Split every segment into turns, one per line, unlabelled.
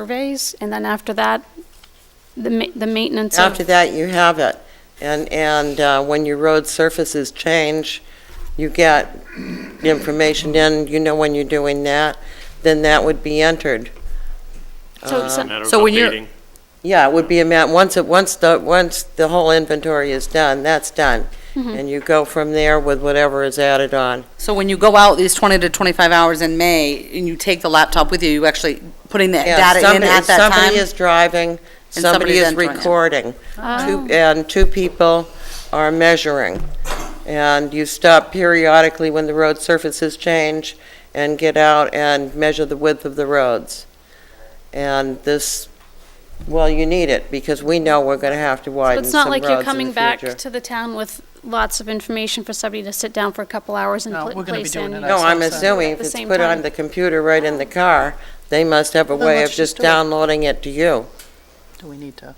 surveys, and then after that, the ma- the maintenance of...
After that, you have it. And, and uh, when your road surfaces change, you get the information in, you know when you're doing that, then that would be entered.
So-
um,
so-
Matter of
So when you're-
updating.
Yeah, it would be a ma, once it, once the, once the whole inventory is done, that's done. And you go from there with whatever is added on.
So when you go out these 20 to 25 hours in May, and you take the laptop with you, you actually putting that
Yeah,
data in
somebody-
at that
Somebody
time?
is driving,
somebody
somebody is
then joins in.
recording,
Oh.
two, and two people are measuring. And you stop periodically when the road surfaces change and get out and measure the width of the roads. And this, well, you need it, because we know we're gonna have to
So
widen
It's
some
not like
roads in the
you're coming back
future.
to the town with lots of information for somebody to sit down for a couple hours and
No,
pl-
we're gonna be
place
doing
in.
it
No, I'm
That's outside.
assuming
At
if
the
it's
same
put on
time.
the computer right in the car, they must have a
Oh. Then
way
let's
of just
just do it.
downloading it to you.
Do we need to?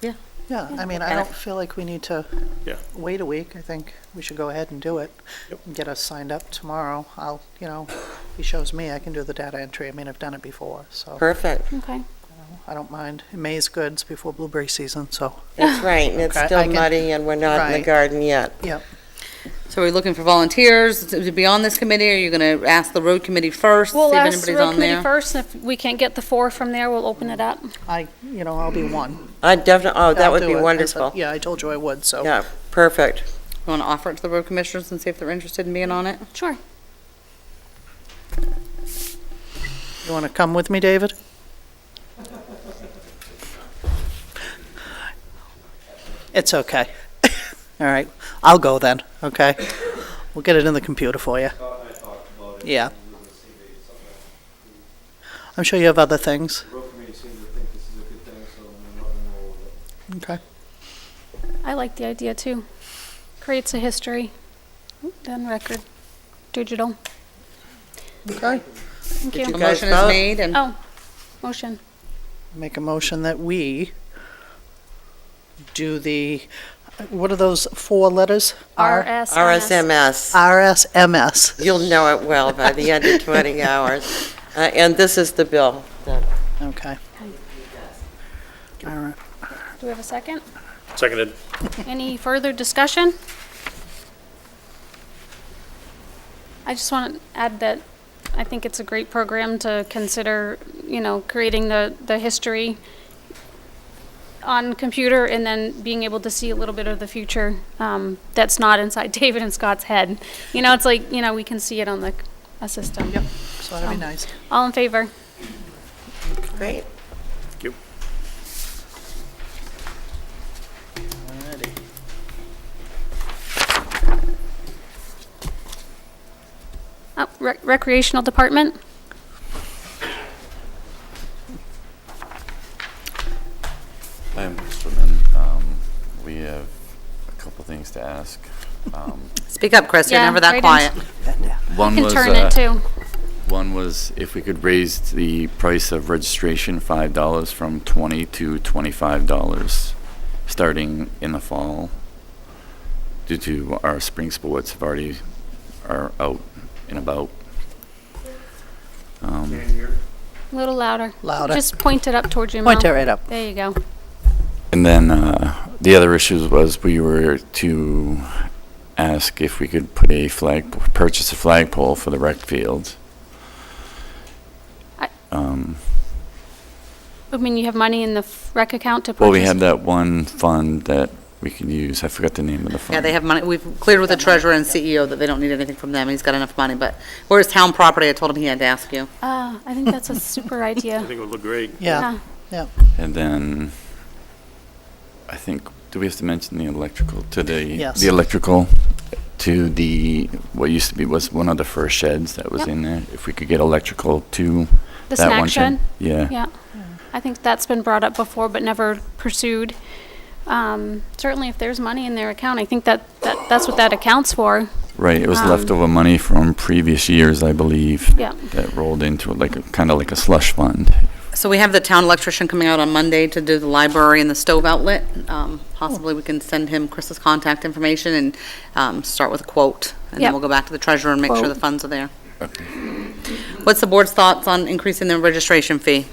Yeah.
Yeah, I mean, I
And
don't
if-
feel like we need to
Yeah.
wait a week. I think we should go ahead and do it.
Yep.
and Get us signed up tomorrow. I'll, you know, he shows me, I can do the data entry. I mean, I've done it before, so
Perfect.
Okay.
I don't mind. May's good, it's before blueberry season, so,
It's right, and it's
Okay, I
still
can-
muddy, and we're not in the
Right.
garden yet.
yep.
So are we looking for volunteers to to be on this committee? Are you going to ask the road committee first? see if
We'll ask the
anybody's
road
on
committee
there?
first, and if we can't get the four from there, we'll open it up.
I, you know, I'll be one.
I definitely, oh, that
I'll
would
do
be
it. I said-
wonderful.
Yeah, I told you I would, so.
Yeah, perfect.
You want to offer it to the road commissioners and see if they're interested in being on it?
Sure.
You want to come with me, David? It's okay. All right, I'll go then, okay? We'll get it in the computer for you. Yeah. I'm sure you have other things.
road committee seemed to think this is a good thing, so I'm not gonna roll with it.
Okay.
I like the idea, too. Creates a history, done record, digital.
Okay.
Thank
you
A
you.
guys
motion is
vote?
made and
Oh, motion.
Make a motion that we do the, what are those four letters?
RSMS.
RSMS.
RSMS.
You'll know it well by the end of 20 hours. Uh, And this is the bill.
Okay. All right.
Do we have a second?
Seconded.
Any further discussion? I just want to add that I think it's a great program to consider, you know, creating the, the history on computer and then being able to see a little bit of the future um, that's not inside David and Scott's head. You know, it's like, you know, we can see it on the, a system.
Yep, so that'd be nice.
All in favor?
Great.
Thank you.
Uh, rec- Recreational Department?
I am Mr. Um We have a couple things to ask. Um,
speak up, Chris, you're
Yeah,
never
right
that
in-
quiet.
One
Can
was,
turn it
uh,
too.
one was if we could raise the price of registration $5 from 20 to $25, starting in the fall, due to our spring sports have already, are out and about. Um,
A little louder.
Louder.
Just point it up towards your mouth.
Point it right up.
There you go.
And then uh, the other issues was we were to ask if we could put a flag, purchase a flagpole for the rec field.
I-
Um,
I mean, you have money in the f- rec account to purchase?
Well, we had that one fund that we could use, I forgot the name of the fund.
Yeah, they have money, we've cleared with the treasurer and CEO that they don't need anything from them, and he's got enough money, but where's town property? I told him he had to ask you.
Ah, I think that's a super
I
idea.
think it would look great.
Yeah,
And then, I think, do we have to mention the electrical, to the,
Yes.
the electrical, to the, what used to be was one of the first sheds that was
Yep.
in there? If we could get electrical to
The
that
snack
one
shed?
shed? Yeah.
Yeah. I think that's been brought up before, but never pursued. Um, Certainly, if there's money in their account, I think that, that that's what that accounts for.
Right, it was
Um,
leftover money from previous years, I believe.
Yeah.
That rolled into it like, kind of like a slush fund.
So we have the town electrician coming out on Monday to do the library and the stove outlet. Um, Possibly we can send him Chris's contact information and um, start with a quote,
Yep.
and then we'll go back to the treasurer and make sure the
Quote.
funds are there. What's the board's thoughts on increasing the registration fee?